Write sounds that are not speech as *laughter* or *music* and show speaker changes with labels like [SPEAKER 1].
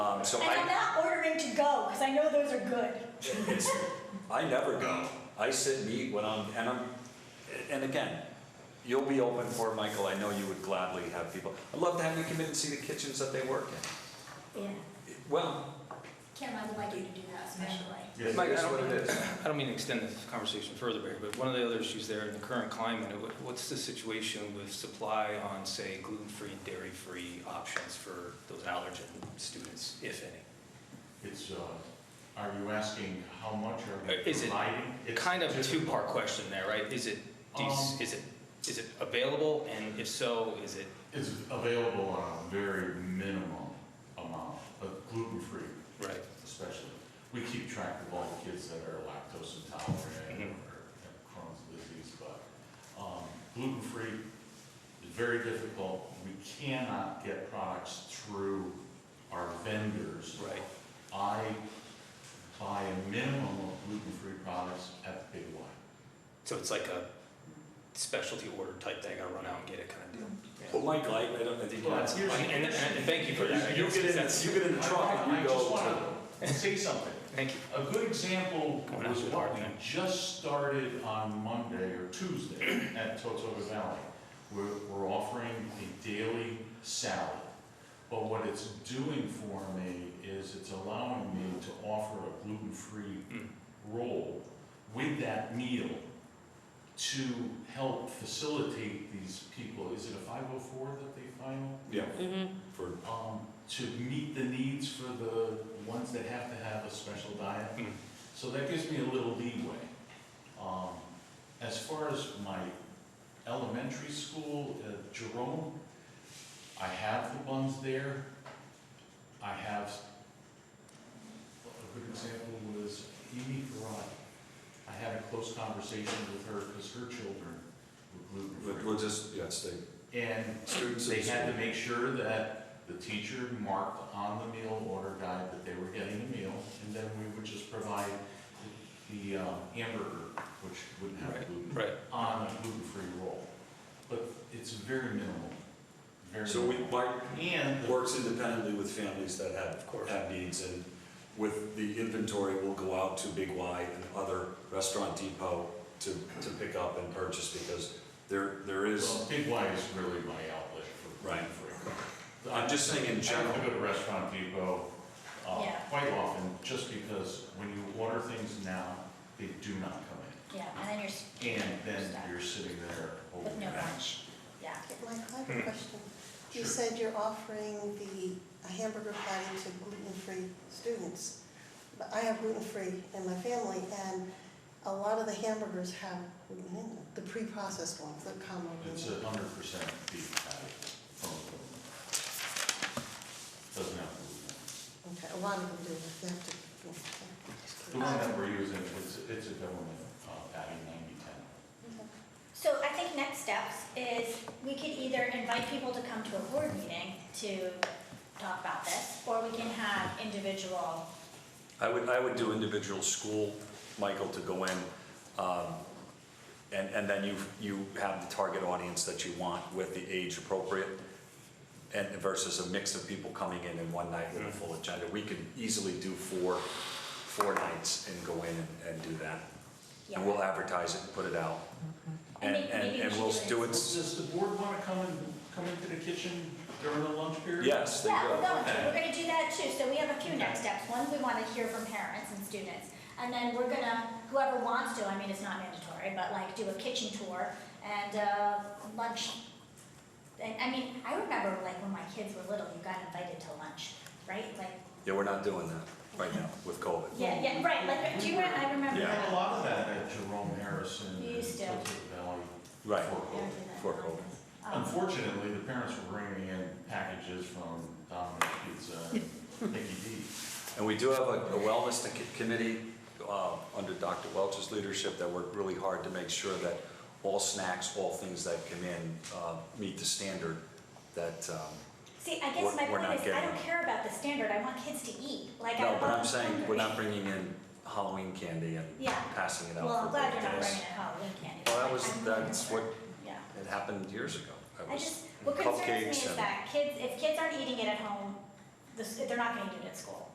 [SPEAKER 1] Um, so
[SPEAKER 2] And I'm
[SPEAKER 1] I,
[SPEAKER 2] not ordering to go, because I know those are good.
[SPEAKER 1] *laughs* it's, I never go. I sit and eat when I'm, and I'm, and again, you'll be open for it, Michael. I know you would gladly have people. I'd love to have you come in and see the kitchens that they work in.
[SPEAKER 2] Yeah.
[SPEAKER 1] Well,
[SPEAKER 2] Kim, I would like you to do that especially.
[SPEAKER 1] it is what it is.
[SPEAKER 3] I don't mean to extend this conversation further, Barry, but one of the other issues there in the current climate, what- what's the situation with supply on, say, gluten-free, dairy-free options for those allergen students, if any?
[SPEAKER 4] It's, uh, are you asking how much are
[SPEAKER 3] Uh,
[SPEAKER 4] we
[SPEAKER 3] is it
[SPEAKER 4] providing? It's
[SPEAKER 3] Kind of a
[SPEAKER 4] difficult.
[SPEAKER 3] two-part question there, right? Is it, do you s-
[SPEAKER 1] Um,
[SPEAKER 3] is it, is it available, and if so, is it,
[SPEAKER 4] It's available on a very minimum amount of gluten-free
[SPEAKER 3] right?
[SPEAKER 4] especially. We keep track of all the kids that are lactose intolerant
[SPEAKER 3] Mhm.
[SPEAKER 4] or have Crohn's disease, but um, gluten-free is very difficult. We cannot get products through our vendors.
[SPEAKER 3] Right.
[SPEAKER 4] I buy a minimum of gluten-free products at the Big Y.
[SPEAKER 3] So it's like a specialty order type thing, I gotta run out and get it kind of deal.
[SPEAKER 1] Well, Michael, I, I don't, I think
[SPEAKER 4] Well,
[SPEAKER 1] that's.
[SPEAKER 4] here's-
[SPEAKER 3] And, and- and thank you for that. I
[SPEAKER 1] You
[SPEAKER 3] guess,
[SPEAKER 1] get in,
[SPEAKER 3] that's-
[SPEAKER 1] you get in the truck and
[SPEAKER 4] I
[SPEAKER 1] you go
[SPEAKER 4] just
[SPEAKER 1] to.
[SPEAKER 4] want to say something.
[SPEAKER 3] Thank you.
[SPEAKER 4] A good example
[SPEAKER 3] Going out
[SPEAKER 4] was
[SPEAKER 3] to the
[SPEAKER 4] what
[SPEAKER 3] park
[SPEAKER 4] we
[SPEAKER 3] then.
[SPEAKER 4] just started on Monday or Tuesday at Totoga Valley. We're, we're offering a daily salad. But what it's doing for me is it's allowing me to offer a gluten-free
[SPEAKER 3] Mm.
[SPEAKER 4] role with that meal to help facilitate these people. Is it a 504 that they file?
[SPEAKER 1] Yeah. For,
[SPEAKER 4] um, to meet the needs for the ones that have to have a special diet.
[SPEAKER 3] Mm.
[SPEAKER 4] So that gives me a little leeway. Um, As far as my elementary school, uh, Jerome, I have the buns there. I have, a good example was Amy Farad. I had a close conversation with her because her children were gluten-free.
[SPEAKER 1] but we'll just, yeah, stay.
[SPEAKER 4] And
[SPEAKER 1] Students.
[SPEAKER 4] they had to make sure that the teacher marked on the meal order guide that they were getting a meal, and then we would just provide the uh, hamburger, which wouldn't have
[SPEAKER 3] Right,
[SPEAKER 4] gluten,
[SPEAKER 3] right.
[SPEAKER 4] on a gluten-free roll. But it's very minimal, very
[SPEAKER 1] So we,
[SPEAKER 4] minimal.
[SPEAKER 1] Mark,
[SPEAKER 4] And, the-
[SPEAKER 1] works independently with families that have,
[SPEAKER 3] course.
[SPEAKER 1] have needs, and with the inventory, we'll go out to Big Y and other Restaurant Depot to, to pick up and purchase, because there, there is,
[SPEAKER 4] well, Big Y is really my outlet for
[SPEAKER 1] Right.
[SPEAKER 4] gluten-free.
[SPEAKER 1] I'm just saying in
[SPEAKER 4] I have to
[SPEAKER 1] general.
[SPEAKER 4] go to Restaurant Depot uh,
[SPEAKER 2] Yeah.
[SPEAKER 4] quite often, just because when you order things now, they do not come in.
[SPEAKER 2] Yeah, and then you're. s-
[SPEAKER 4] And then
[SPEAKER 2] stuck
[SPEAKER 4] you're sitting there
[SPEAKER 2] With
[SPEAKER 4] holding
[SPEAKER 2] no
[SPEAKER 4] your hand.
[SPEAKER 2] lunch, yeah.
[SPEAKER 5] Mike, I have
[SPEAKER 3] Hmm.
[SPEAKER 5] a question. You
[SPEAKER 4] Sure.
[SPEAKER 5] said you're offering the a hamburger patty to gluten-free students. But I have gluten-free in my family, and a lot of the hamburgers have gluten in them, the pre-processed ones that come
[SPEAKER 4] It's
[SPEAKER 5] over.
[SPEAKER 4] a hundred percent beef patty from the Doesn't have gluten.
[SPEAKER 5] Okay, a lot of them do, they have to. okay, just
[SPEAKER 4] The
[SPEAKER 5] kidding.
[SPEAKER 4] one that we're using, it's, it's a government uh, patty ninety-ten.
[SPEAKER 2] So I think next steps is we could either invite people to come to a board meeting to talk about this, or we can have individual,
[SPEAKER 1] I would, I would do individual school, Michael, to go in, um, and, and then you, you have the target audience that you want with the age appropriate, and versus a mix of people coming in in one night with a full agenda. We can easily do four, four nights and go in and- and do that.
[SPEAKER 2] yeah. Mm-hmm.
[SPEAKER 1] And we'll advertise it and put it out.
[SPEAKER 2] And
[SPEAKER 1] And,
[SPEAKER 2] may- maybe
[SPEAKER 1] and,
[SPEAKER 2] we
[SPEAKER 1] and
[SPEAKER 2] should
[SPEAKER 1] we'll
[SPEAKER 2] do it
[SPEAKER 1] do it,
[SPEAKER 4] Does the board want to come and, come into the kitchen during the lunch period?
[SPEAKER 1] yes, there you
[SPEAKER 2] Yeah, we're
[SPEAKER 1] go.
[SPEAKER 2] going to, we're gonna do that too, so we have a few next steps, one, we wanna hear from parents and students, and then we're gonna, whoever wants to, I mean, it's not mandatory, but like, do a kitchen tour and, uh, lunch. And, I mean, I remember like when my kids were little, you got invited to lunch, right, like,
[SPEAKER 1] Yeah, we're not doing that right now with COVID.
[SPEAKER 2] yeah, yeah, right, like, do you, re- I remember
[SPEAKER 4] We
[SPEAKER 1] Yeah.
[SPEAKER 4] had a
[SPEAKER 2] that.
[SPEAKER 4] lot of that at Jerome Harrison and
[SPEAKER 2] We used to.
[SPEAKER 4] Tilted Valley.
[SPEAKER 1] Right.
[SPEAKER 4] before
[SPEAKER 2] Yeah, we
[SPEAKER 4] COVID.
[SPEAKER 2] did that.
[SPEAKER 1] For COVID.
[SPEAKER 2] Um,
[SPEAKER 4] Unfortunately, the parents were bringing in packages from Domino's Pizza
[SPEAKER 2] *laughs*
[SPEAKER 4] and Mickey D's.
[SPEAKER 1] And we do have a a wellness to- committee uh, under Dr. Welch's leadership that worked really hard to make sure that all snacks, all things that come in uh, meet the standard that, um,
[SPEAKER 2] See, I guess
[SPEAKER 1] We're-
[SPEAKER 2] my
[SPEAKER 1] we're not
[SPEAKER 2] point is, I
[SPEAKER 1] getting
[SPEAKER 2] don't
[SPEAKER 1] it.
[SPEAKER 2] care about the standard, I want kids to eat, like, I
[SPEAKER 1] no,
[SPEAKER 2] want
[SPEAKER 1] but I'm
[SPEAKER 2] them
[SPEAKER 1] saying, we're
[SPEAKER 2] hungry.
[SPEAKER 1] not bringing in Halloween candy and
[SPEAKER 2] Yeah.
[SPEAKER 1] passing it out.
[SPEAKER 2] Well, I'm
[SPEAKER 1] for
[SPEAKER 2] glad you're not
[SPEAKER 1] birthdays.
[SPEAKER 2] bringing it home, we can't.
[SPEAKER 1] Well, that was,
[SPEAKER 2] I'm really
[SPEAKER 1] that's what,
[SPEAKER 2] concerned. Yeah.
[SPEAKER 1] it happened years ago. It
[SPEAKER 2] I
[SPEAKER 1] was
[SPEAKER 2] just, what concerns me
[SPEAKER 1] cupcakes
[SPEAKER 2] is
[SPEAKER 1] and-
[SPEAKER 2] that kids, if kids aren't eating it at home, the s- they're not gonna do it at school.